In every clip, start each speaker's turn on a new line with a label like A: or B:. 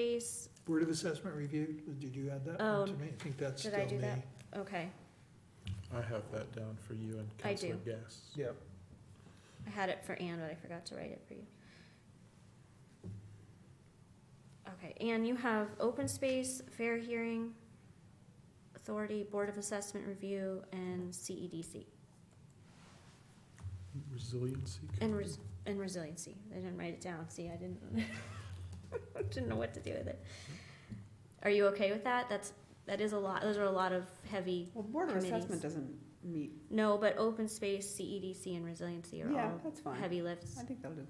A: space,
B: Board of Assessment Review, did you add that
A: Oh,
B: one to me? I think that's
A: did
B: still
A: I
B: me.
A: do that? okay,
C: I have that down for you and
A: I do.
C: Counselor Gass.
B: Yep.
A: I had it for Anne, but I forgot to write it for you. Okay, Anne, you have open space, fair hearing, authority, board of assessment review, and E CEDC,
C: Resiliency.
A: and res- and resiliency, I didn't write it down, see, I didn't, didn't know what to do with it. Are you okay with that? That's, that is a lot, those are a lot of heavy,
D: Well, Board of
A: Committees.
D: Assessment doesn't meet,
A: no, but open space, CEDC, and resiliency are
D: yeah,
A: all
D: that's fine.
A: heavy lifts,
D: I think that'll do.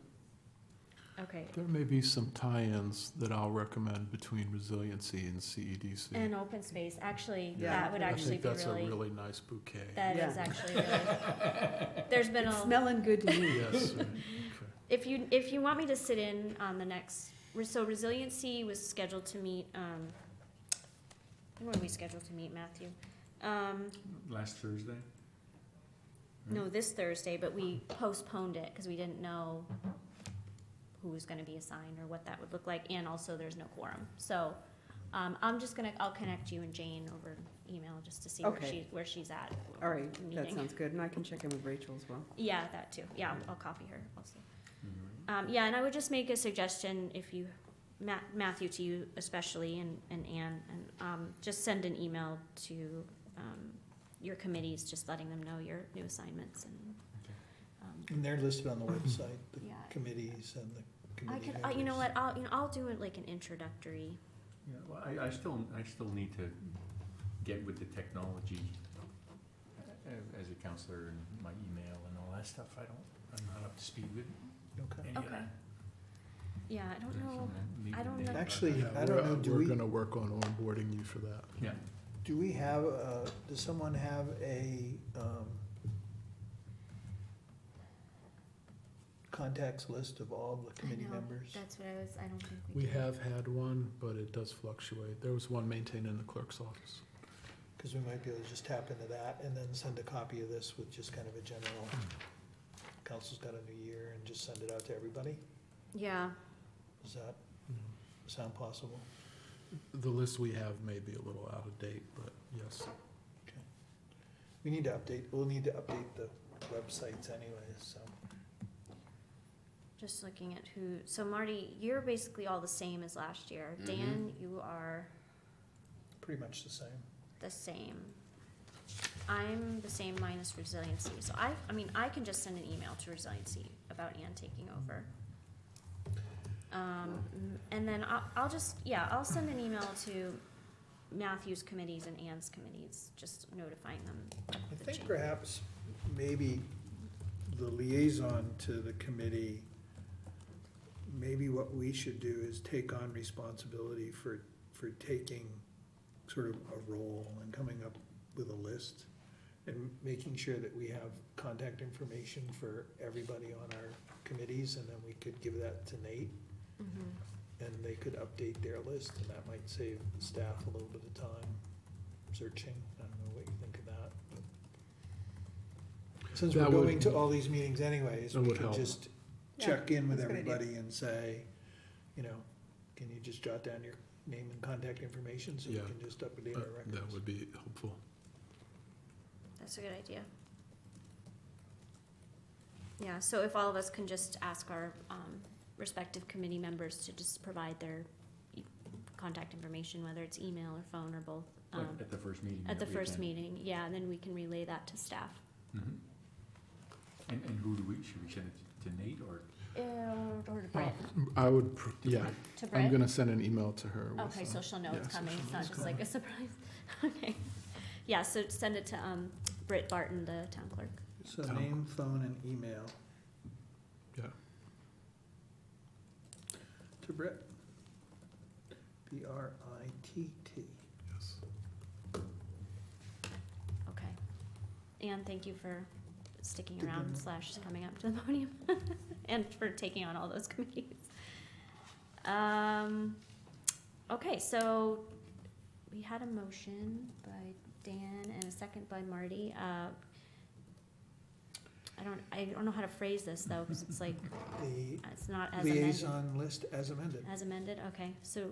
A: okay.
C: There may be some tie-ins that I'll recommend between resiliency and E CEDC.
A: And open space, actually,
C: Yeah.
A: that would
D: I
A: actually be
C: I think that's a
A: really,
C: really nice bouquet.
A: that is
D: Yeah.
A: actually really, there's been
D: It's
A: a,
D: smelling good to me.
C: Yes, right,
A: if you, if you want me to sit in on the next, re- so resiliency was scheduled to meet, um, when were we scheduled to meet, Matthew? Um,
E: Last Thursday?
D: Hmm.
A: no, this Thursday, but we postponed it, cause we didn't know who was gonna be assigned or what that would look like, and also there's no quorum, so, um, I'm just gonna, I'll connect you and Jane over email, just to see where
D: Okay.
A: she, where she's at.
D: All right, that
A: Meeting.
D: sounds good, and I can check in with Rachel as well.
A: Yeah, that too. Yeah, I'll- I'll copy her also.
C: Mm-hmm.
A: Um, yeah, and I would just make a suggestion if you, Ma- Matthew to you especially and, and Anne, and, um, just send an email to, um, your committees, just letting them know your new assignments and,
E: Okay.
A: um,
B: And they're listed on the website, the
A: yeah.
B: committees and the
A: I
B: committee
A: could,
B: members.
A: uh, you know what, I'll, you know, I'll do it like an introductory.
E: Yeah, well, I, I still, I still need to get with the technology a- as a counselor and my email and all that stuff. I don't, I'm not up to speed with
B: Okay.
E: any of
A: Okay.
E: that.
A: Yeah, I don't know.
E: Maybe
A: I don't
E: they-
A: know.
B: Actually,
C: Yeah,
B: I don't
C: we're-
B: know, do
C: We're
B: we-
C: gonna work on onboarding you for that.
E: Yeah,
B: Do we have, uh, does someone have a, um, contacts list of all the committee
A: know,
B: members?
A: That's what I was, I don't think we
C: We
A: did.
C: have had one, but it does fluctuate. There was one maintained in the clerk's office.
B: Cause we might be able to just tap into that and then send a copy of this with just kind of a general, council's got a new year and just send it out to everybody?
A: Yeah,
B: Does that
C: Mm-hmm.
B: sound possible?
C: The list we have may be a little out of date, but yes.
B: We need to update, we'll need to update the websites anyways, so.
A: just looking at who, so Marty, you're basically all the same as last year.
C: Mm-hmm.
A: Dan, you are.
B: Pretty much the same.
A: the same. I'm the same minus resiliency, so I, I mean, I can just send an email to resiliency about Ann taking over. Um, and then I'll, I'll just, yeah, I'll send an email to Matthew's committees and Ann's committees, just notifying them.
B: I
A: The
B: think
A: change.
B: perhaps maybe the liaison to the committee, maybe what we should do is take on responsibility for, for taking sort of a role and coming up with a list and making sure that we have contact information for everybody on our committees and then we could give that to Nate and they could update their list and that might save staff a little bit of time searching. I don't know what you think of that. but- Since we're
C: That would-
B: going to all these meetings anyways,
C: That
B: we
C: would
B: can
C: help.
B: just check in with
D: that's a good idea.
B: everybody and say, you know, can you just jot down your name and contact information so we
C: Yeah,
B: can just update our
C: That that
B: records?
C: would be helpful.
A: That's a good idea. Yeah, so if all of us can just ask our, um, respective committee members to just provide their e- contact information, whether it's email or phone or both.
E: like
A: um,
E: at the first meeting.
A: At the
E: that we
A: first
E: attend.
A: meeting, yeah, and then we can relay that to staff.
E: Mhm. And, and who do we, should we send it to Nate or?
A: Or to Brett,
C: I would, pr-
E: to
C: yeah,
E: Brett?
A: to
C: Oh, I'm
A: Brett?
C: gonna send an email to her with.
A: Okay,
C: uh,
A: so she'll know
C: yeah,
A: it's
C: so
A: coming,
C: she'll
A: it's
C: know
A: not
C: it's
A: just like a surprise, okay. Yeah, so send it to, um, Britt Barton, the town clerk.
B: So
C: Tom.
B: name, phone, and email.
C: Yeah.
B: To Brett. B R I T T.
C: Yes.
A: Okay. And thank you for sticking
B: Good
A: around
B: demo.
A: slash coming up to the podium and for taking on all those committees. Um, okay, so we had a motion by Dan and a second by Marty. Uh, I don't, I don't know how to phrase this though, cause it's like,
B: The
A: it's not as amended.
B: liaison list as amended.
A: As amended, okay. So